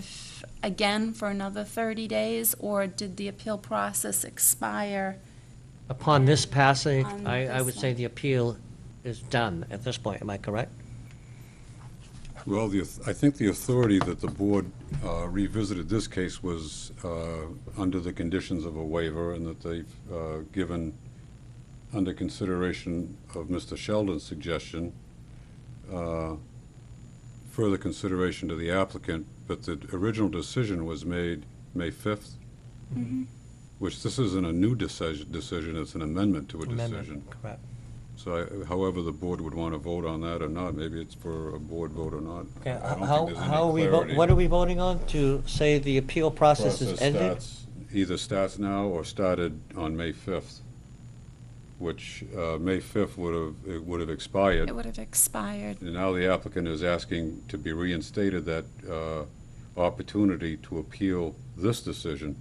if, again, for another 30 days, or did the appeal process expire? Upon this passing, On I, I this would say one. the appeal is done at this point, am I correct? Well, the, auth- I think the authority that the board uh, revisited this case was uh, under the conditions of a waiver and that they've uh, given, under consideration of Mr. Sheldon's suggestion, uh, further consideration to the applicant, but the original decision was made May 5th, which this isn't a new decision, decision, it's an amendment to a Amendment, decision. Correct. So I- however, the board would want to vote on that or not, maybe it's for a board vote or not. Okay, I don't how, think there's any how are we, vo- clarity. what are we voting on? To say the appeal process is Process ended? starts- Either starts now or started on May 5th, which, uh, May 5th would have, it would have expired. It would have expired. And now the applicant is asking to be reinstated that uh, opportunity to appeal this decision.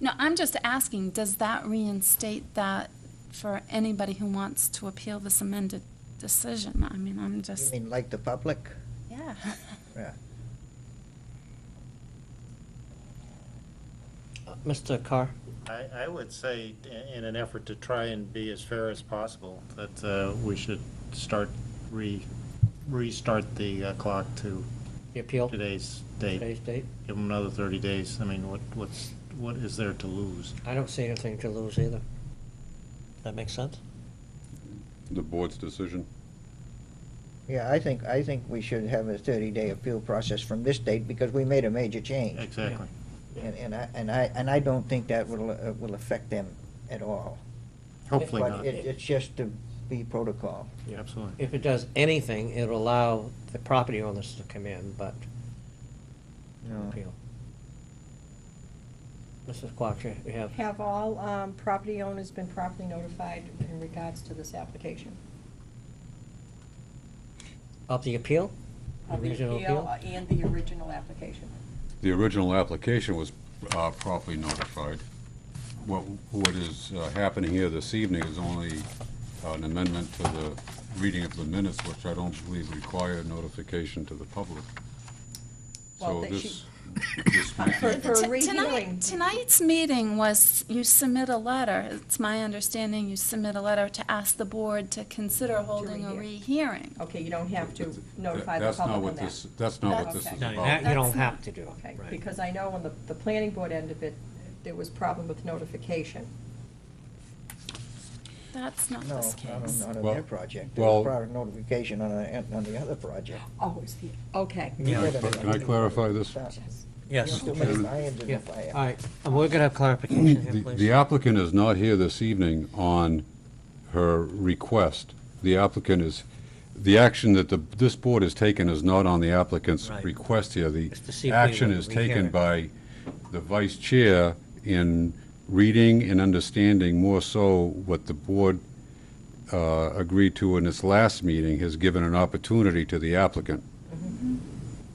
No, I'm just asking, does that reinstate that for anybody who wants to appeal this amended decision? I mean, I'm You just, mean like the public? yeah. Yeah. Uh, Mr. Carr? I, I would say, i- in an effort to try and be as fair as possible, that uh, we should start, re, restart the uh, clock to The appeal, today's date. today's date? Give them another 30 days. I mean, what, what's, what is there to lose? I don't see anything to lose either. That makes sense? The board's decision. Yeah, I think, I think we should have a thirty-day appeal process from this date because we made a major change. Exactly. And, and I, and I, and I don't think that will, uh, will affect them at all. Hopefully But not. it, it's just to be protocol. Absolutely. If it does anything, it'll allow the property owners to come in, but No. appeal. Mrs. Quattro, you have, Have all um, property owners been properly notified in regards to this application? of the appeal? Of the Original appeal? And the original application? The original application was uh, properly notified. What, what is uh, happening here this evening is only uh, an amendment to the reading of the minutes, which I don't believe require notification to the public. So Well, that this, this might For- be- for T- rehearing. Tonight, tonight's meeting was, you submit a letter, it's my understanding you submit a letter to ask the board to consider holding a rehear. rehearing. Okay, you don't have to notify the That's not public what on that. this- That's not what this Okay. is No, about. you ha- you don't That's not- have to do it, Okay, right. because I know on the, the planning board end of it, there was problem with notification. That's not No, this not on, case. not on Well- their project. There was well- prior notification on, a- on the other project. Oh, it's the, okay. Yeah. Wait a minute, Can I clarify this? You're Yes. Uh, too many irons in Yeah. the fire. All right, and we're gonna have clarification here, The the please. applicant is not here this evening on her request. The applicant is, the action that the, this board has taken is not on the applicant's Right. request here. It's to see The if we action would is taken rehear. by the vice chair in reading and understanding more so what the board uh, agreed to in its last meeting, has given an opportunity to the applicant,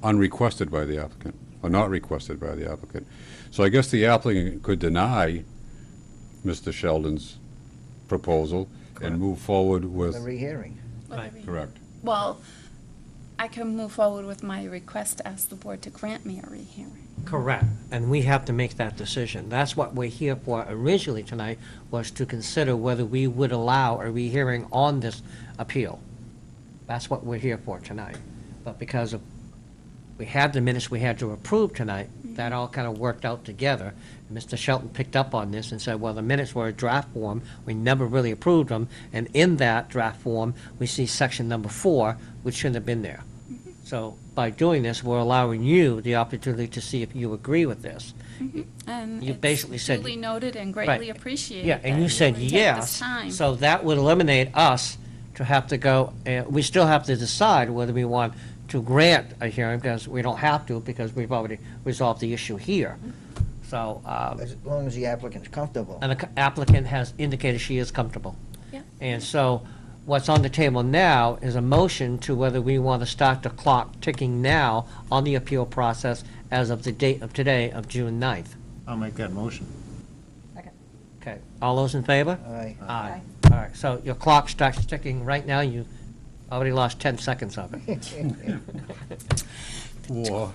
unrequested by the applicant, or not requested by the applicant. So I guess the applicant could deny Mr. Sheldon's proposal and move forward The with, rehearing. With Right. the re- correct. Well, I can move forward with my request to ask the board to grant me a rehearing. Correct, and we have to make that decision. That's what we're here for originally tonight, was to consider whether we would allow a rehearing on this appeal. That's what we're here for tonight. But because of, we had the minutes we had to approve tonight, that all kind of worked out together. And Mr. Shelton picked up on this and said, well, the minutes were a draft form, we never really approved them, and in that draft form, we see section number four, which shouldn't have been there. So by doing this, we're allowing you the opportunity to see if you agree with this. And You it's basically said- duly noted and greatly Right. appreciated. Yeah, and that you said would take this yes. time. So that would eliminate us to have to go, uh, we still have to decide whether we want to grant a hearing because we don't have to because we've already resolved the issue here. So, um, As long as the applicant's comfortable. and the applicant has indicated she is comfortable. Yeah. And so what's on the table now is a motion to whether we want to start the clock ticking now on the appeal process as of the date of today of June 9th. I'll make that motion. Second. Okay, all those in favor? Aye. Aye. All right, so your clock starts ticking right now, you already lost 10 seconds of it. Or